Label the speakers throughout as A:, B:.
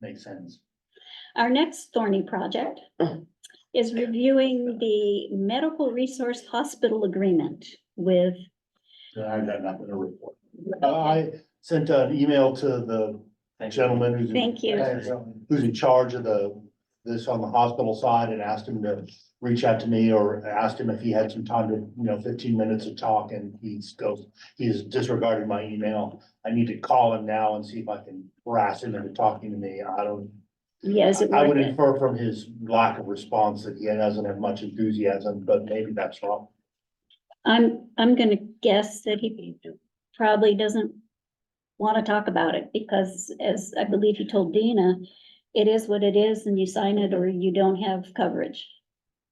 A: makes sense.
B: Our next thorny project is reviewing the medical resource hospital agreement with,
A: Then I've got nothing to report. I sent an email to the gentleman who's. in-
B: Thank you.
A: Who's in charge of the, this on the hospital side and asked him to reach out to me or asked him if he had some time to, you know, fifteen minutes to talk and he's goes. He's disregarded my email. I need to call him now and see if I can harass him into talking to me. I don't.
B: yes, it
A: I would
B: worth it?
A: infer from his lack of response that he doesn't have much enthusiasm, but maybe that's wrong.
B: I'm, I'm gonna guess that he probably doesn't want to talk about it because as I believe he told Dina, it is what it is and you sign it or you don't have coverage.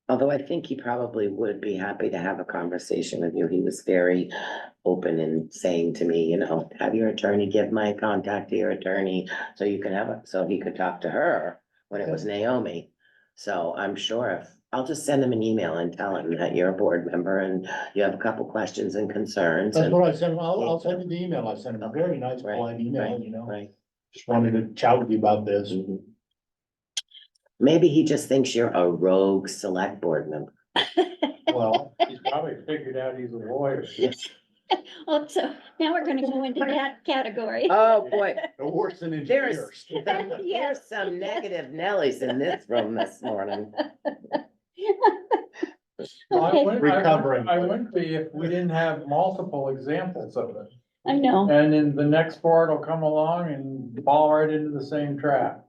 C: Although I think he probably would be happy to have a conversation with you. He was very open in saying to me, you know, have your attorney give my contact to your attorney so you can have it, so he could talk to her when it was Naomi. So I'm sure if, I'll just send him an email and tell him that you're a board member and you have a couple questions and concerns
A: That's
C: and,
A: what I sent him. I'll, I'll send you the email. I sent him a very nice
C: Right,
A: blind email,
C: right,
A: you know.
C: right?
A: Just wanted to chat with you about this.
C: Mhm. Maybe he just thinks you're a rogue select board member.
A: Well,
D: He's probably figured out he's a lawyer.
C: Yes.
B: Well, so now we're gonna go into that category.
A: Uh,
C: Oh, boy.
A: no worse than
C: There's-
A: engineers.
C: There's some negative Nellies in this room this morning.
D: Well, I
B: Okay.
D: wouldn't- I wouldn't-
A: Recovering.
D: I wouldn't be if we didn't have multiple examples of it.
B: I
A: uh,
B: know,
D: And then the next board will come along and fall right into the same trap.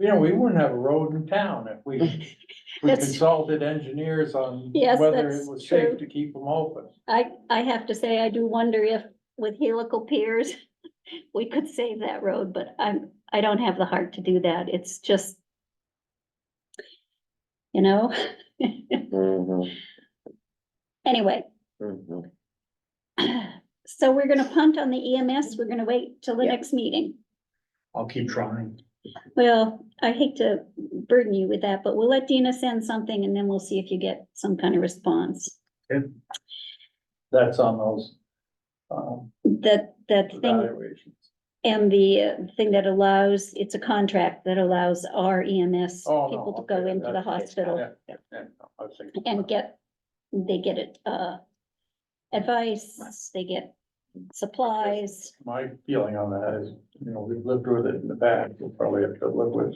D: You know, we wouldn't have a road in town if we we
B: That's-
D: consulted engineers on
B: Yes,
D: whether
B: that's
D: it was safe
B: true.
D: to keep them open.
B: I, I have to say, I do wonder if with helical piers, we could save that road, but I'm, I don't have the heart to do that. It's just, you know,
A: Mm-hmm,
C: Mhm,
B: anyway.
C: mhm.
B: So we're gonna punt on the EMS. We're gonna wait till the
C: Yeah.
B: next meeting.
A: I'll keep trying.
B: Well, I hate to burden you with that, but we'll let Dina send something and then we'll see if you get some kind of response.
D: That's on those um,
B: That, that thing
D: evaluations.
B: and the uh, thing that allows, it's a contract that allows our EMS
D: Oh, no,
B: people to go
D: okay,
B: into the
D: that's-
B: hospital
D: yeah, yeah, yeah, I was thinking
B: and
D: about-
B: get, they get it, uh, advice, they get supplies.
D: My feeling on that is, you know, we've lived with it in the past, we'll probably have to live with.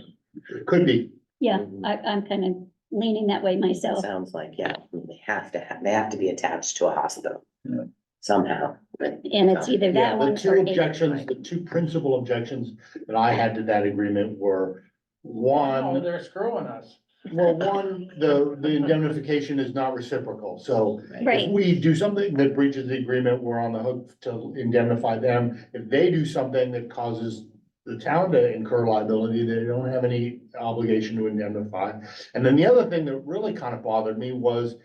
A: Could be.
B: Yeah,
A: mm-hmm.
C: Mhm.
B: I, I'm kind of leaning that way myself.
C: Sounds like, yeah, they have to, have. they have to be attached to a hospital
D: Yeah.
C: somehow.
B: And it's either
A: Yeah,
B: that one
A: the two
B: or it.
A: objections, the two principal objections that I had to that agreement were one.
D: No, They're screwing us.
A: Well, one, the, the indemnification is not reciprocal, so
B: Right.
A: if we do something that breaches the agreement, we're on the hook to indemnify them. If they do something that causes the town to incur liability, they don't have any obligation to indemnify. And then the other thing that really kind of bothered me was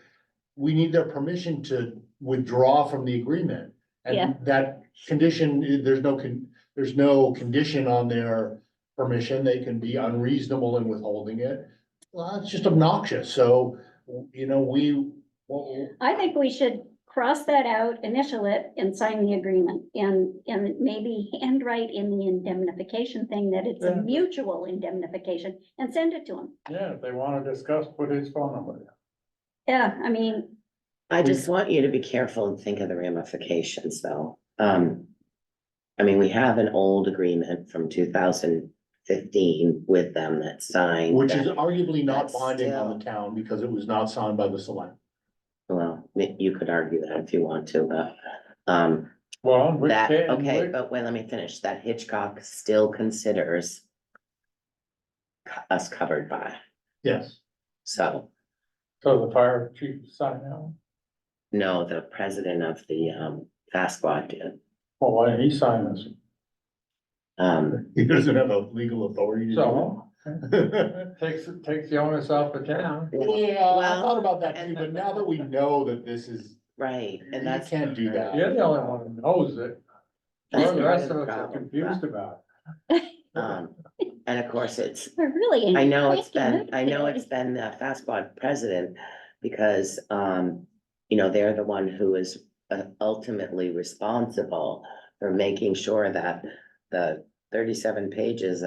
A: we need their permission to withdraw from the agreement.
B: Yeah.
A: And that condition, there's no, con- there's no condition on their permission. They can be unreasonable in withholding it. Well, it's just obnoxious. So, you know, we, well,
B: I think we should cross that out, initial it, and sign the agreement, and, and maybe handwrite in the indemnification thing that it's a
D: Yeah.
B: mutual indemnification, and send it to them.
D: Yeah, if they wanna discuss, put his phone number down.
B: Yeah, I mean,
C: I
B: Mm.
C: just want you to be careful and think of the ramifications, though. Um, I mean, we have an old agreement from two thousand fifteen with them that signed.
A: which
C: that-
A: is arguably not
C: That's
A: binding on
C: still-
A: the town because it was not signed by the select.
C: Well, you could argue that if you want to, but, um,
D: Well, in which
C: That,
D: case.
C: okay,
D: which-
C: but wait, let me finish. That Hitchcock still considers co- us covered by,
A: Yes.
C: so,
D: So the fire chief signed out,
C: no, the president of the, um, fast squad did.
D: well, why didn't he sign this?
C: Um,
A: He doesn't have a legal authority to do
D: So,
A: it.
D: takes, takes the onus off the town.
A: Yeah, I
C: Well,
A: thought about that too,
C: and-
A: but now that we know that this is,
C: right,
A: you
C: and that's.
A: can't do that.
D: You're the only one who knows it,
C: that's
D: the rest of
C: part the
D: us are
C: problem,
D: confused about
C: but, Um, and of course, it's,
B: we're really.
C: I know it's
B: asking
C: been, I know
B: them
C: it's been the fast squad president, because, um, you know, they're the one who is uh, ultimately responsible for making sure that the thirty-seven pages